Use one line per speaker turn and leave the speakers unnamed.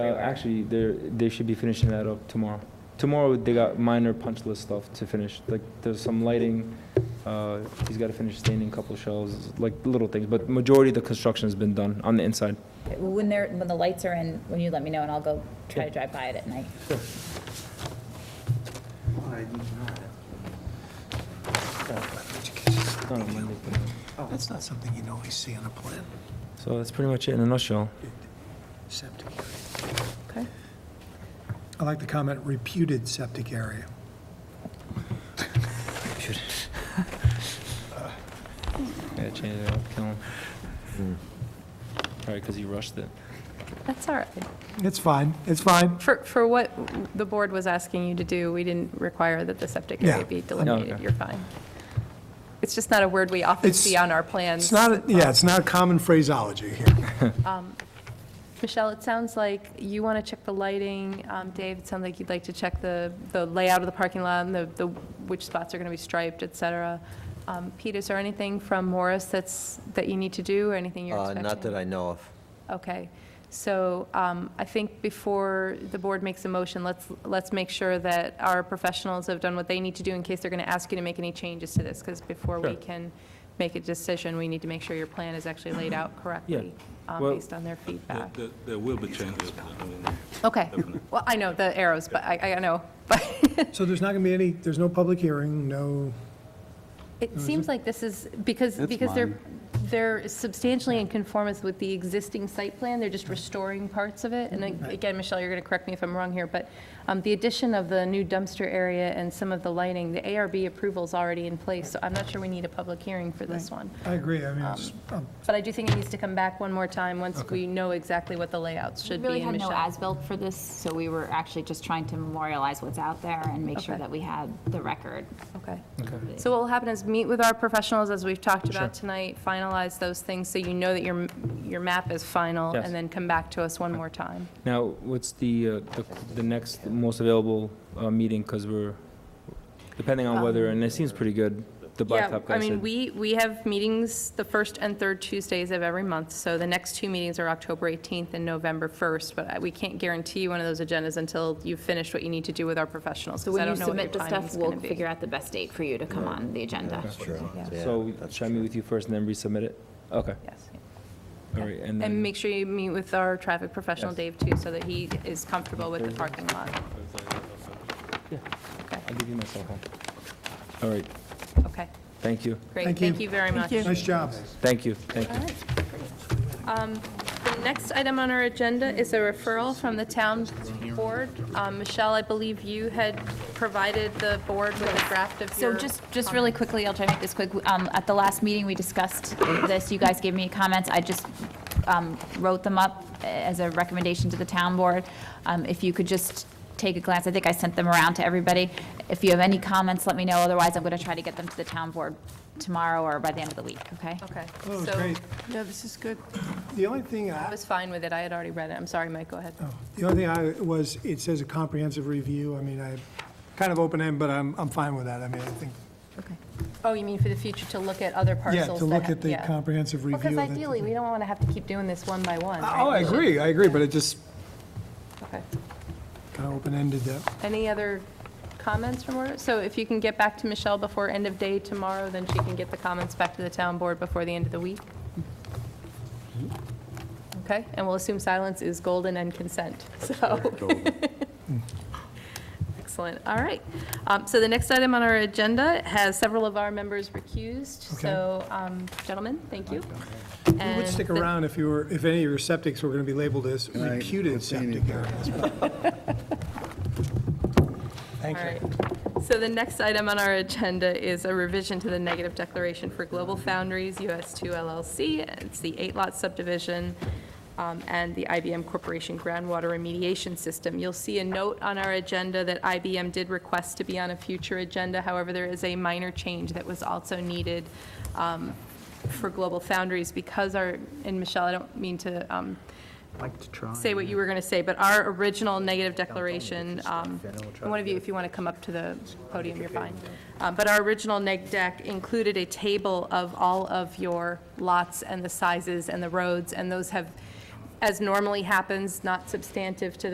Uh, actually, they're, they should be finishing that up tomorrow. Tomorrow, they got minor punch list stuff to finish, like, there's some lighting, uh, he's gotta finish staining a couple shelves, like, little things, but majority of the construction's been done on the inside.
When they're, when the lights are in, when you let me know, and I'll go try to drive by it at night.
It's not on Monday.
That's not something you normally see on a plan,
So that's pretty much it in a nutshell.
septic.
Okay.
I like the comment reputed septic area.
Yeah, change it up, kill him. Probably 'cause he rushed it.
That's all right.
It's fine, it's fine.
For, for what the board was asking you to do, we didn't require that the septic
Yeah.
area be delineated.
okay.
You're fine. It's just not a word we often
It's-
see on our plans.
It's not, a- yeah, it's not common phraseology here.
Michelle, it sounds like you want to check the lighting. Um, Dave, it sounds like you'd like to check the, the layout of the parking lot and the, the, which spots are going to be striped, et cetera. Um, Pete, is there anything from Morris that's, that you need to do or anything you're
Uh,
expecting?
Not that I know of.
Okay, so um, I think before the board makes a motion, let's, let's make sure that our professionals have done what they need to do in case they're going to ask you to make any changes to this, because before we
Sure.
can make a decision, we need to make sure your plan is actually laid out correctly, um,
Well-
based on their
There-
feedback.
there- There will be changes. I mean,
Okay,
definitely.
well, I know the arrows, but I, I know, but
So there's not going to be any, there's no public hearing, no,
it seems like this is, because, because they're, they're substantially in conformance with the existing site plan, they're just restoring parts of it. And then, again, Michelle, you're going to correct me if I'm wrong here, but um, the addition of the new dumpster area and some of the lighting, the ARB approval's already in place, so I'm not sure we need a public hearing for this one.
I agree, I mean, it's, um,
But I do think it needs to come back one more time, once we know exactly what the layouts should
We
be.
really
and
had no
Michelle-
as-built for this, so we were actually just trying to memorialize what's out there and make sure
Okay.
that we had the record.
Okay. So what will happen is meet with our professionals, as we've talked about tonight, finalize those things so you know that your, your map is final,
Yes.
and then come back to us one more time.
Now, what's the, uh, the, the next most available, uh, meeting, cause we're, depending on weather, and it seems pretty good, the
Um, Yeah,
blacktop guy
I
said.
mean, we, we have meetings the first and third Tuesdays of every month, so the next two meetings are October 18th and November 1st, but I- we can't guarantee one of those agendas until you've finished what you need to do with our professionals,
So
because I
when you
don't know what your
submit the
timing's
stuff,
going
we'll
to be.
figure out the best date for you to come on the agenda.
Yeah,
So
that's
should I meet
true.
with you first and then resubmit it? Okay,
Yes.
all right, and
And
then,
make sure you meet with our traffic professional,
Yes.
Dave, too, so that he is comfortable with the parking lot.
I'll give you my cell phone. All right,
Okay,
thank you,
great.
Thank you.
Thank you very much.
nice job.
thank you, thank you.
The next item on our agenda is a referral from the town board. Um, Michelle, I believe you had provided the board with a draft of
So
your...
just, just really quickly, I'll try to make this quick. Um, At the last meeting, we discussed this, you guys gave me comments, I just um, wrote them up as a recommendation to the town board. Um, If you could just take a glance, I think I sent them around to everybody. If you have any comments, let me know, otherwise I'm going to try to get them to the town board tomorrow or by the end of the week, okay?
Okay.
Oh, it's
so
great.
Yeah, this is good.
The only thing
I
I,
was fine with it, I had already read it, I'm sorry, Mike, go ahead.
the only thing I was, it says a comprehensive review, I mean, I, kind of open-ended, but I'm, I'm fine with that, I mean, I think,
Okay.
Oh, you mean for the future to look at other
yeah,
parcels?
to
that
look
ha-
at the
yeah.
comprehensive
Well,
review.
because
that-
ideally, we don't want to have to keep doing this one by one.
Oh, I
right?
agree, I agree, but it just
Okay.
kind of open-ended that.
Any other comments from her? So if you can get back to Michelle before end of day tomorrow, then she can get the comments back to the town board before the end of the week? Okay, and we'll assume silence is golden and consent, so. Excellent, all right. Um, So the next item on our agenda has several of our members recused,
Okay.
so, um, gentlemen, thank you.
You would stick around if you were, if any of your septics were going to be labeled as reputed septic areas. Thank
All right. So the next item on our agenda is a revision to the negative declaration for Global Foundries US 2 LLC. It's the eight-lot subdivision um, and the IBM Corporation groundwater remediation system. You'll see a note on our agenda that IBM did request to be on a future agenda. However, there is a minor change that was also needed um, for Global Foundries because our, and Michelle, I don't mean to um, say what you were going to say, but our original negative declaration, um, and one of you, if you want to come up to the podium, you're fine. Uh, But our original neg deck included a table of all of your lots and the sizes and the roads, and those have as normally happens, not substantive to the